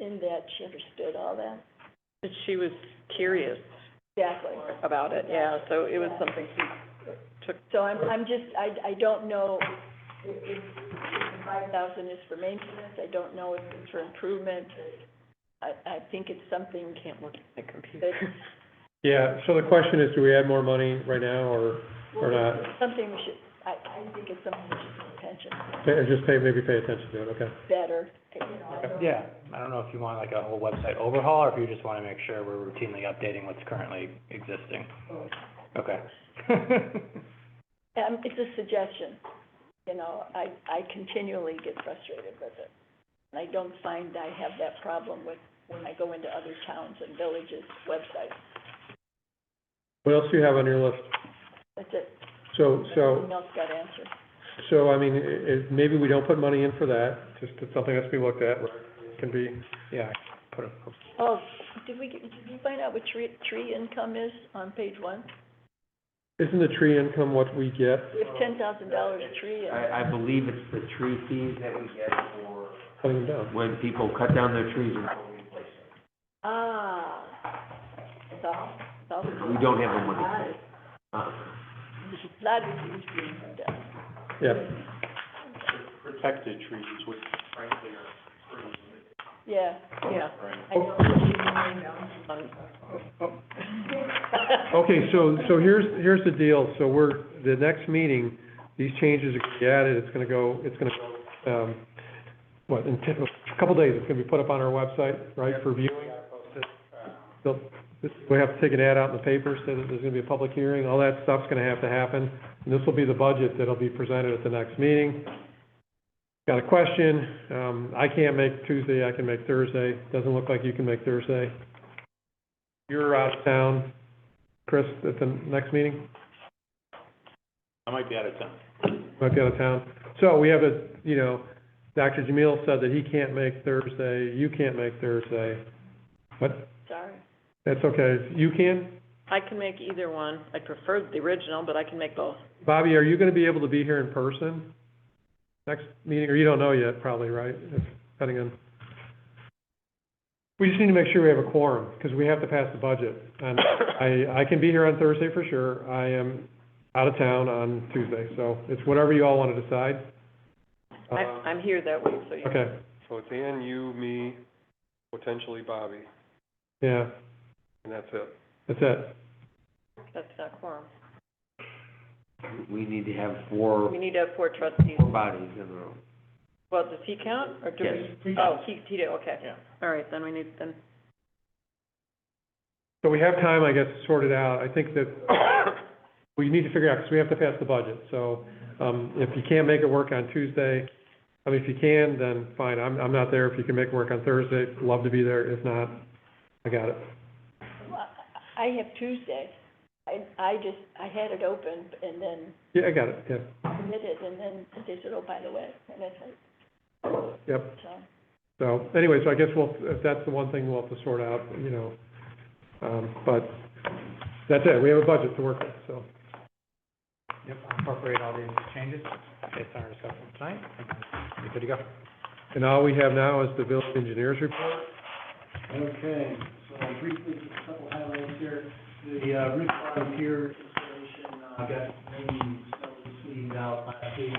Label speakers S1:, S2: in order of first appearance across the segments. S1: in that she understood all that.
S2: But She was curious
S1: Exactly.
S2: about it, yeah, so it was something she took,
S1: So I'm, I'm just, I, I don't know if, if the five thousand is for maintenance, I don't know if it's for improvement. I, I think it's something
S2: can't look at the computer.
S3: Yeah, so the question is, do we add more money right now, or, or not?
S1: Something we should, I, I think it's something we should pay attention to
S3: Or just pay, maybe pay attention to it, okay?
S1: better, you know, I don't-
S4: Yeah, I don't know if you want like a whole website overhaul, or if you just wanna make sure we're routinely updating what's currently existing. Okay.
S1: um, it's a suggestion. You know, I, I continually get frustrated with it. And I don't find I have that problem with, when I go into other towns and villages' websites.
S3: What else do you have on your list?
S1: That's it.
S3: So, so,
S1: Nothing else got answered.
S3: so, I mean, i i maybe we don't put money in for that, just, it's something that has to be looked at, where it can be, yeah, put a,
S1: Oh, did we, get- did you find out what tree, tree income is on page one?
S3: isn't the tree income what we get?
S1: We have ten thousand dollars tree and,
S5: I, I believe it's the tree fees that we get for
S3: Cutting them down.
S5: when people cut down their trees and we replace
S1: ah, it's all, it's all.
S5: them. We don't have the money. for it. Uh,
S1: Lot of trees being cut down.
S3: Yeah,
S6: protected trees, which frankly are pretty
S1: Yeah,
S2: Yeah.
S1: I know.
S2: Um,
S3: oh. okay, so, so here's, here's the deal, so we're, the next meeting, these changes are gonna be added, it's gonna go, it's gonna, go, um, what, in ti- a couple days, it's gonna be put up on our website, right, for viewing? So, this, we have to take an ad out in the paper, so that there's gonna be a public hearing, all that stuff's gonna have to happen, and this will be the budget that'll be presented at the next meeting. Got a question, um, I can't make Tuesday, I can make Thursday, doesn't look like you can make Thursday. You're out of town, Chris, at the next meeting?
S6: I might be out of town.
S3: might be out of town. So we have a, you know, Dr. Jamil said that he can't make Thursday, you can't make Thursday, but
S1: Sorry.
S3: that's okay. You can?
S2: I can make either one, I prefer the original, but I can make both.
S3: Bobby, are you gonna be able to be here in person next meeting, or you don't know yet, probably, right? If- Depending on. We just need to make sure we have a quorum, because we have to pass the budget. And I, I can be here on Thursday for sure. I am out of town on Tuesday, so it's whatever you all wanna decide.
S2: I, I'm here that week, so you.
S3: Uh, Okay,
S7: So it's Ann, you, me, potentially Bobby,
S3: yeah,
S7: and that's it.
S3: that's it.
S2: That's not quorum.
S5: We need to have four,
S2: We need to have four trustees.
S5: four bodies in the room.
S2: Well, does he count, or do we? Oh, he, he did, okay.
S6: Yeah.
S2: All right, then we need, then,
S3: So we have time, I guess, to sort it out. I think that we need to figure out, because we have to pass the budget. So, um, if you can't make it work on Tuesday, I mean, if you can, then fine, I'm, I'm not there. If you can make it work on Thursday, love to be there. If not, I got it.
S1: Well, I I have Tuesday. I, I just, I had it open and then
S3: Yeah, I got it, yeah,
S1: committed and then they said, oh, by the way, and I said,
S3: yep.
S1: so.
S3: So, anyway, so I guess we'll, if that's the one thing we'll have to sort out, you know. Um, but that's it, we have a budget to work with, so.
S4: Yep, I'll incorporate all these changes based on our discussion tonight, and be good to go.
S3: And all we have now is the village engineers report.
S8: Okay, so briefly, just a couple highlights here. The uh, roof volunteer installation, uh, got maybe some sweetened out last week.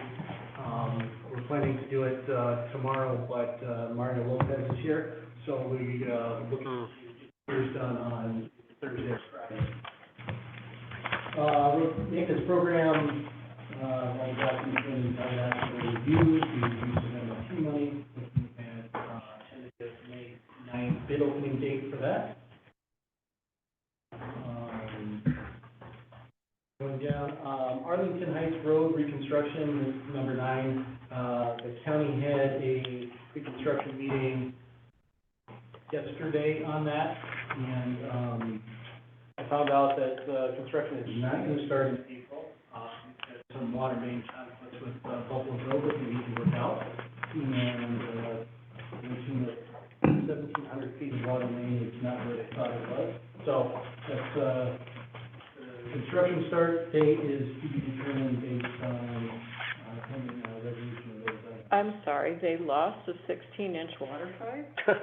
S8: Um, we're planning to do it, uh, tomorrow, but, uh, Mario Lopez is here, so we, uh, looking to get yours done on Thursday or Friday. Uh, we'll make this program, uh, like that, we can, uh, reviews, we use some MLT money, looking at, uh, tentative May ninth bid opening date for that. Um, Going down, um, Arlington Heights Road reconstruction, is number nine, uh, the county had a reconstruction meeting yesterday on that, and, um, I found out that, uh, construction is not gonna start in April. Uh, there's some water main conflicts with, uh, Buffalo Grove that we need to work out, and, uh, mentioned that seventeen hundred feet of water main is not where they thought it was. So, that's, uh, the construction start date is to be determined based on, uh, pending, uh, resolution of those items.
S2: I'm sorry, they lost a sixteen inch water pipe?